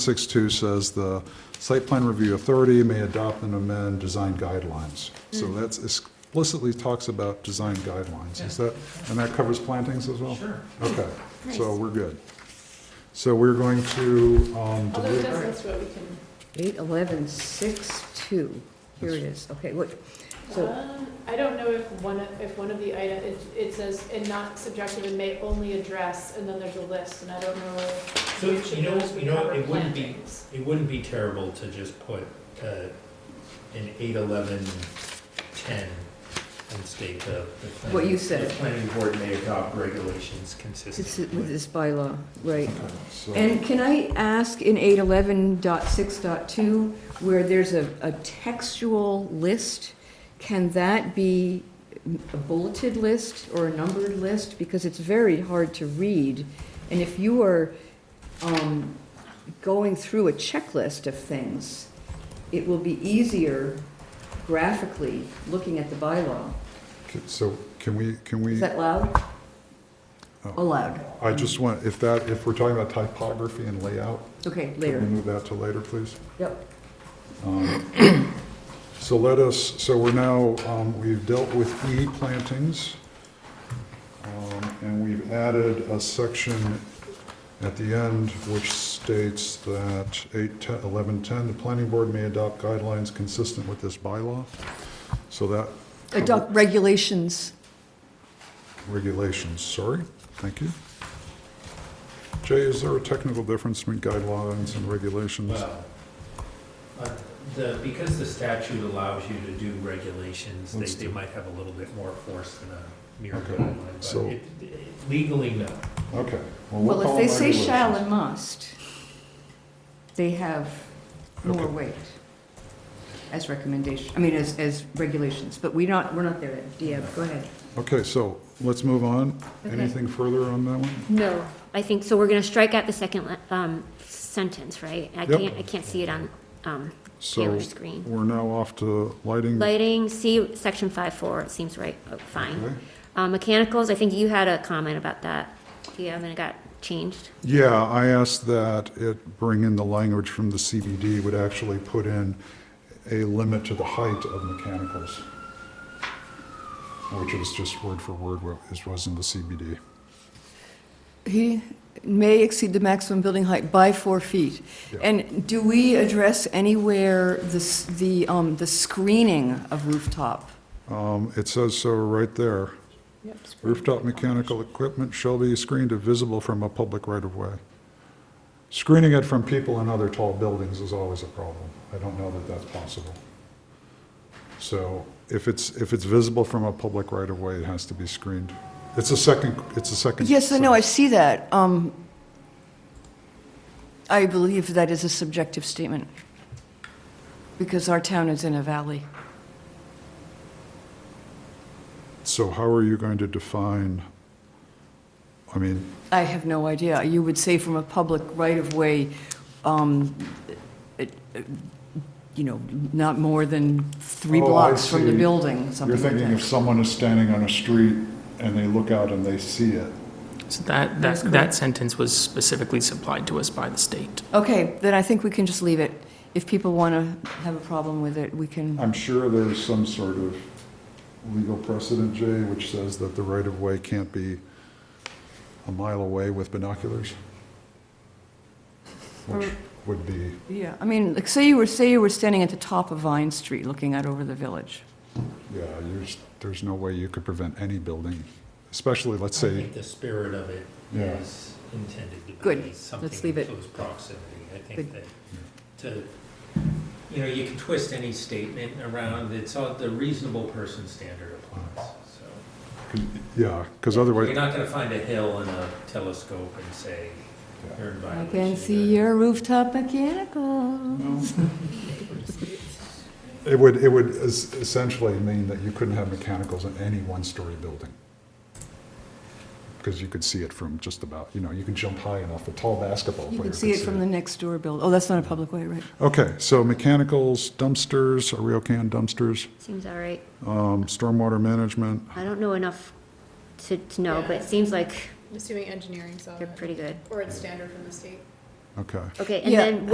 Six-two says the site plan review authority may adopt and amend design guidelines. So Mm. that's explicitly talks about design guidelines. Is that, and that covers plantings as well? Sure. Okay, so Nice. we're good. So we're going to, Oh, um, Although delete- it does list what we can, Eight eleven six two, here it is, okay, what, so, Um, I don't know if one, of- if one of the item, it, it says, and not subjective and may only address, and then there's a list, and I don't know. So, which you know, of those would you know, cover it wouldn't be- plantings. It wouldn't be terrible to just put uh, an eight eleven ten and state the. the planning- What you said. The planning board may adopt regulations it's consistent with with. this bylaw, right? okay, so- And can I ask in eight eleven dot six dot two, where there's a, a textual list, can that be a bulleted list or a numbered list? Because it's very hard to read, and if you are, um, going through a checklist of things, it will be easier graphically looking at the bylaw. okay, so can we, can Is we, that loud? Oh. Allowed. I just want, if that, if we're talking about typography and layout, Okay, can we later. move that to later, please? Yep. Um, So let us, so we're now, um, we've dealt with E plantings, um, and we've added a section at the end which states that 8, 10, 11, 10, the planning board may adopt guidelines consistent with this bylaw. So that Adopt regulations. regulations, sorry, thank you. Jay, is there a technical difference between guidelines and regulations? Well, uh, the, because the statute allows you to do regulations, they, Let's they do- might have a little bit more force than a mere Okay, guideline. so- But it- it- legally, no. Okay. we'll Well, call if they them say shall regulations. and must, they have more Okay. weight as recommendation, I mean, as, as regulations, but we're not, we're not there yet. Deab, go ahead. Okay, so let's move on. Okay. Anything further on that one? No, I think, so we're gonna strike out the second, le- um, sentence, right? I Yep. can't, I can't see it on, um, So Taylor's screen. we're now off to lighting. Lighting, see section five four, it seems right, oh, fine. Okay. Uh, mechanicals, I think you had a comment about that. Yeah, and it got changed. Yeah, I asked that it bring in the language from the CBD would actually put in a limit to the height of mechanicals, which is just word for word what is- was in the CBD. He may exceed the maximum building height by four feet. Yeah. And do we address anywhere the, s- the, um, the screening of rooftop? Um, It says so right there. Rooftop mechanical equipment shall be screened if visible from a public right-of-way. Screening it from people in other tall buildings is always a problem. I don't know that that's possible. So if it's, if it's visible from a public right-of-way, it has to be screened. It's a second, it's a second. Yes, I know, I see that. Um, I believe that is a subjective statement, because our town is in a valley. So how are you going to define, I mean, I have no idea. You would say from a public right-of-way, um, it- it- you know, not more than three Oh, I blocks from the see. building, you're something like thinking if that. someone is standing on a street and they look out and they see it, So that, that, that sentence was specifically supplied to us by the state. Okay, then I think we can just leave it. If people want to have a problem with it, we can, I'm sure there's some sort of legal precedent, Jay, which says that the right-of-way can't be a mile away with binoculars, which Mm. would be, yeah, I mean, like, say you were, say you were standing at the top of Vine Street looking out over the village. yeah, there's, there's no way you could prevent any building, especially, let's I say, think the spirit of it Yeah. is intended to be. Good. Let's leave it. Something in close proximity. I think Good. that, to, you know, you can twist any statement around, it's all, the reasonable person standard applies, so. yeah, because You're otherwise, not gonna find a hill in a telescope and say, you're in I violation. can see your rooftop mechanicals. it would, it would es- essentially mean that you couldn't have mechanicals in any one-story building. Because you could see it from just about, you know, you can jump high enough, a tall basketball player You can could see it from the next door building. Oh, that's not a public way, right? Okay, so mechanicals, dumpsters, are we okay on dumpsters? Seems all right. Um, stormwater management, I don't know enough to, to know, but Yeah. it seems like I'm assuming engineering's on they're it, pretty good. or it's standard from the state. okay. Okay, and Yeah. then